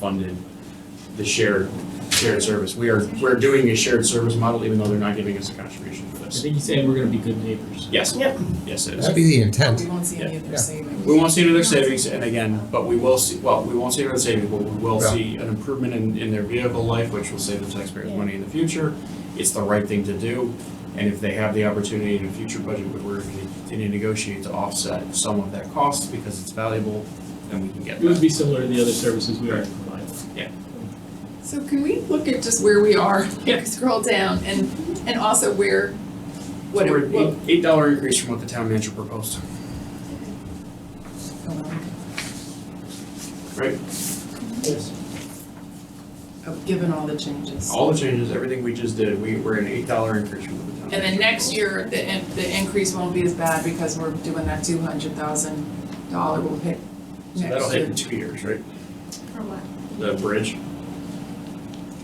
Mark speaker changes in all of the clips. Speaker 1: funded the shared, shared service. We are, we're doing a shared service model even though they're not giving us a contribution for
Speaker 2: I
Speaker 1: this.
Speaker 2: think he's saying we're gonna be good neighbors.
Speaker 1: Yes,
Speaker 3: Yep.
Speaker 1: yes, it is.
Speaker 4: That'd be the
Speaker 3: We
Speaker 4: intent.
Speaker 3: won't see any of
Speaker 4: Yeah.
Speaker 3: their savings.
Speaker 1: We won't see any of their savings and again, but we will see, well, we won't see any of their savings, but we will
Speaker 4: Yeah.
Speaker 1: see an improvement in, in their vehicle life, which will save the taxpayers money in the future. It's the right thing to do. And if they have the opportunity in a future budget, where we're gonna continue to negotiate to offset some of that cost because it's valuable, then we can get
Speaker 2: It
Speaker 1: that.
Speaker 2: would be similar to the other services we already provide.
Speaker 3: So can we look at just where we are?
Speaker 1: Yeah.
Speaker 3: Scroll down and, and also where, what,
Speaker 1: So we're at
Speaker 3: what,
Speaker 1: eight, eight dollar increase from what the town manager proposed.
Speaker 3: oh,
Speaker 1: Right.
Speaker 2: Yes.
Speaker 3: oh, given all the changes.
Speaker 1: All the changes, everything we just did, we were an eight dollar increase from the town.
Speaker 3: And then next year, the, in- the increase won't be as bad because we're doing that two hundred thousand dollar will hit next
Speaker 1: So
Speaker 3: year.
Speaker 1: that'll hit in two years, right?
Speaker 5: For what?
Speaker 1: The bridge,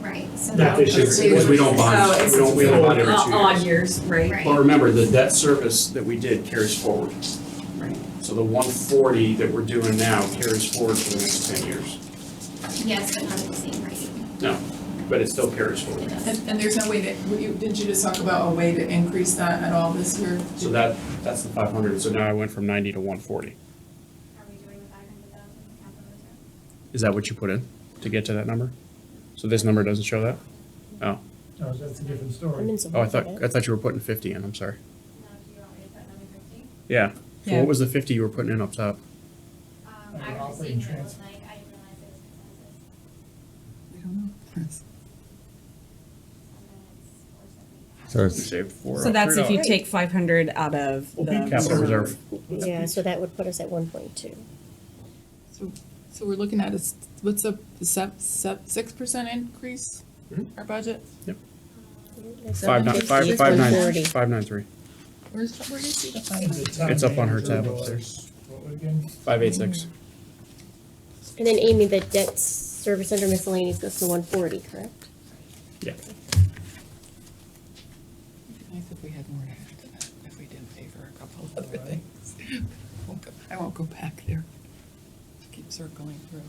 Speaker 5: Right, so
Speaker 2: That
Speaker 5: that
Speaker 2: this
Speaker 5: would
Speaker 2: year.
Speaker 5: be-
Speaker 1: because we don't
Speaker 6: Oh,
Speaker 3: So
Speaker 1: bond,
Speaker 3: it's-
Speaker 1: Oh, we don't, we don't bond every two years.
Speaker 6: Odd years, right?
Speaker 1: But
Speaker 5: Right,
Speaker 1: remember, the debt service that we did carries forward.
Speaker 3: Right.
Speaker 1: So the one forty that we're doing now carries forward for the next ten years,
Speaker 5: yes, but not at the same rate.
Speaker 1: but it still carries
Speaker 5: It
Speaker 1: forward.
Speaker 5: does.
Speaker 3: And, and there's no way that, were you- did you just talk about a way to increase that at all this year?
Speaker 1: So that, that's the five hundred, so now I went from ninety to one forty.
Speaker 5: Are we doing five hundred thousand capital reserve?
Speaker 1: Is that what you put in to get to that number? So this number doesn't show that?
Speaker 7: No, that's a different story.
Speaker 1: Oh, I thought, I thought you were putting fifty in, I'm sorry.
Speaker 5: No, do you want me to put another fifty?
Speaker 1: Yeah. So
Speaker 6: Yeah.
Speaker 1: what was the fifty you were putting in up top?
Speaker 5: Um,
Speaker 7: Under
Speaker 5: I was
Speaker 7: operating
Speaker 5: seeing that it was
Speaker 7: transfer.
Speaker 5: like, I didn't realize it was consensus,
Speaker 3: I don't know.
Speaker 5: and then it's four seventy.
Speaker 4: So
Speaker 1: We
Speaker 4: it's,
Speaker 1: saved four.
Speaker 6: So that's if you
Speaker 1: $3.
Speaker 6: take five hundred out of the.
Speaker 1: Well, big capital reserve.
Speaker 8: Yeah, so that would put us at one point two.
Speaker 3: So we're looking at a, s- what's a, sep, sep, six percent increase
Speaker 1: Hmm?
Speaker 3: our budget?
Speaker 1: Five nine, five, five nine, five nine three,
Speaker 3: Where's, where do you see the five?
Speaker 7: The town
Speaker 1: It's up on her
Speaker 7: manager
Speaker 1: tab
Speaker 7: was-
Speaker 1: upstairs.
Speaker 7: What was again?
Speaker 1: five eight six.
Speaker 8: And then Amy, the debt service under miscellaneous goes to one forty, correct?
Speaker 3: Nice if we had more to add to that, if we didn't pay for a couple of other things. Won't go- I won't go back there. Keep circling through.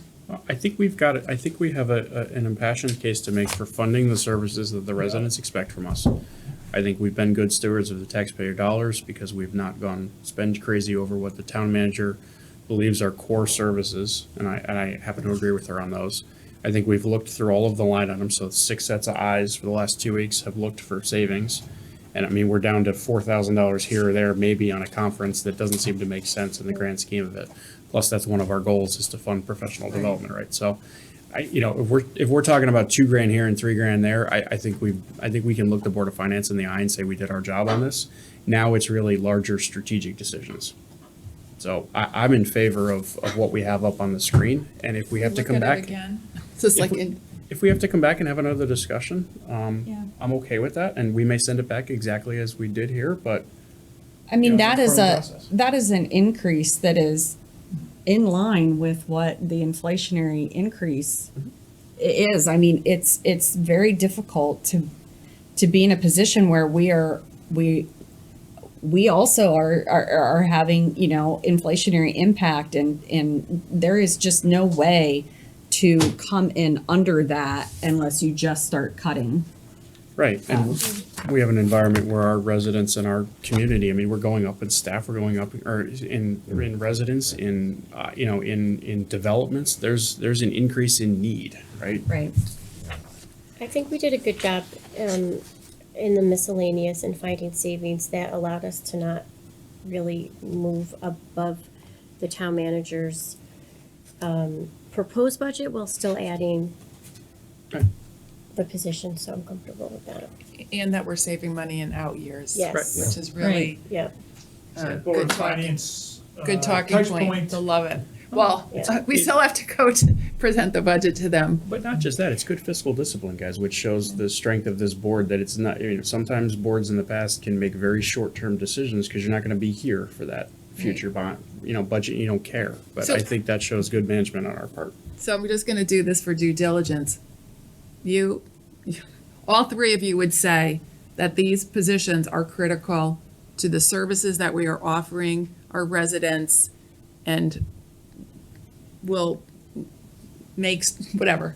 Speaker 1: I think we've got, it. I think we have a, a- an impassioned case to make for funding the services that the residents expect from us. I think we've been good stewards of the taxpayer dollars because we've not gone spend crazy over what the town manager believes are core services, and I, and I happen to agree with her on those. I think we've looked through all of the line items, so six sets of eyes for the last two weeks have looked for savings. And I mean, we're down to four thousand dollars here or there, maybe on a conference that doesn't seem to make sense in the grand scheme of it. Plus, that's one of our goals is to fund professional
Speaker 3: Right.
Speaker 1: development, right? So, I, you know, if we're, if we're talking about two grand here and three grand there, I, I think we, I think we can look the Board of Finance in the eye and say we did our job on this. Now it's really larger strategic decisions. So I, I'm in favor of, of what we have up on the screen, and if we have to come
Speaker 3: Look at it
Speaker 1: back,
Speaker 3: again. It's just
Speaker 1: If
Speaker 3: like
Speaker 1: we-
Speaker 3: in,
Speaker 1: if we have to come back and have another discussion, um,
Speaker 6: Yeah.
Speaker 1: I'm okay with that, and we may send it back exactly as we did here, but
Speaker 6: I mean,
Speaker 7: Yeah,
Speaker 6: that
Speaker 7: it's
Speaker 6: is
Speaker 7: a part
Speaker 6: a,
Speaker 7: of the process.
Speaker 6: that is an increase that is in line with what the inflationary increase i- is. I mean, it's, it's very difficult to, to be in a position where we are, we, we also are, are, are having, you know, inflationary impact and, and there is just no way to come in under that unless you just start cutting.
Speaker 1: Right, and we have an environment where our residents and our community, I mean, we're going up in staff, we're going up, or in, in residents, in, uh, you know, in, in developments, there's, there's an increase in need, right?
Speaker 6: Right.
Speaker 8: I think we did a good job, um, in the miscellaneous and finding savings that allowed us to not really move above the town manager's, um, proposed budget while still adding
Speaker 1: Right.
Speaker 8: the position, so I'm comfortable with that.
Speaker 3: and that we're saving money in out years.
Speaker 8: Yes. Right.
Speaker 3: Which is really,
Speaker 8: Yeah,
Speaker 3: uh,
Speaker 7: Board
Speaker 3: good
Speaker 7: of
Speaker 3: talking,
Speaker 7: Finance. uh,
Speaker 3: good talking
Speaker 7: touch
Speaker 3: point, I love it. Well, uh,
Speaker 8: Yeah.
Speaker 3: we still have to go to present the budget to them.
Speaker 1: But not just that, it's good fiscal discipline, guys, which shows the strength of this board, that it's not, you know, sometimes boards in the past can make very short-term decisions, because you're not gonna be here for that future bond, you know, budget, you don't care, but
Speaker 3: So-
Speaker 1: I think that shows good management on our part.
Speaker 3: So I'm just gonna do this for due diligence. You, all three of you would say that these positions are critical to the services that we are offering our residents and will makes, whatever.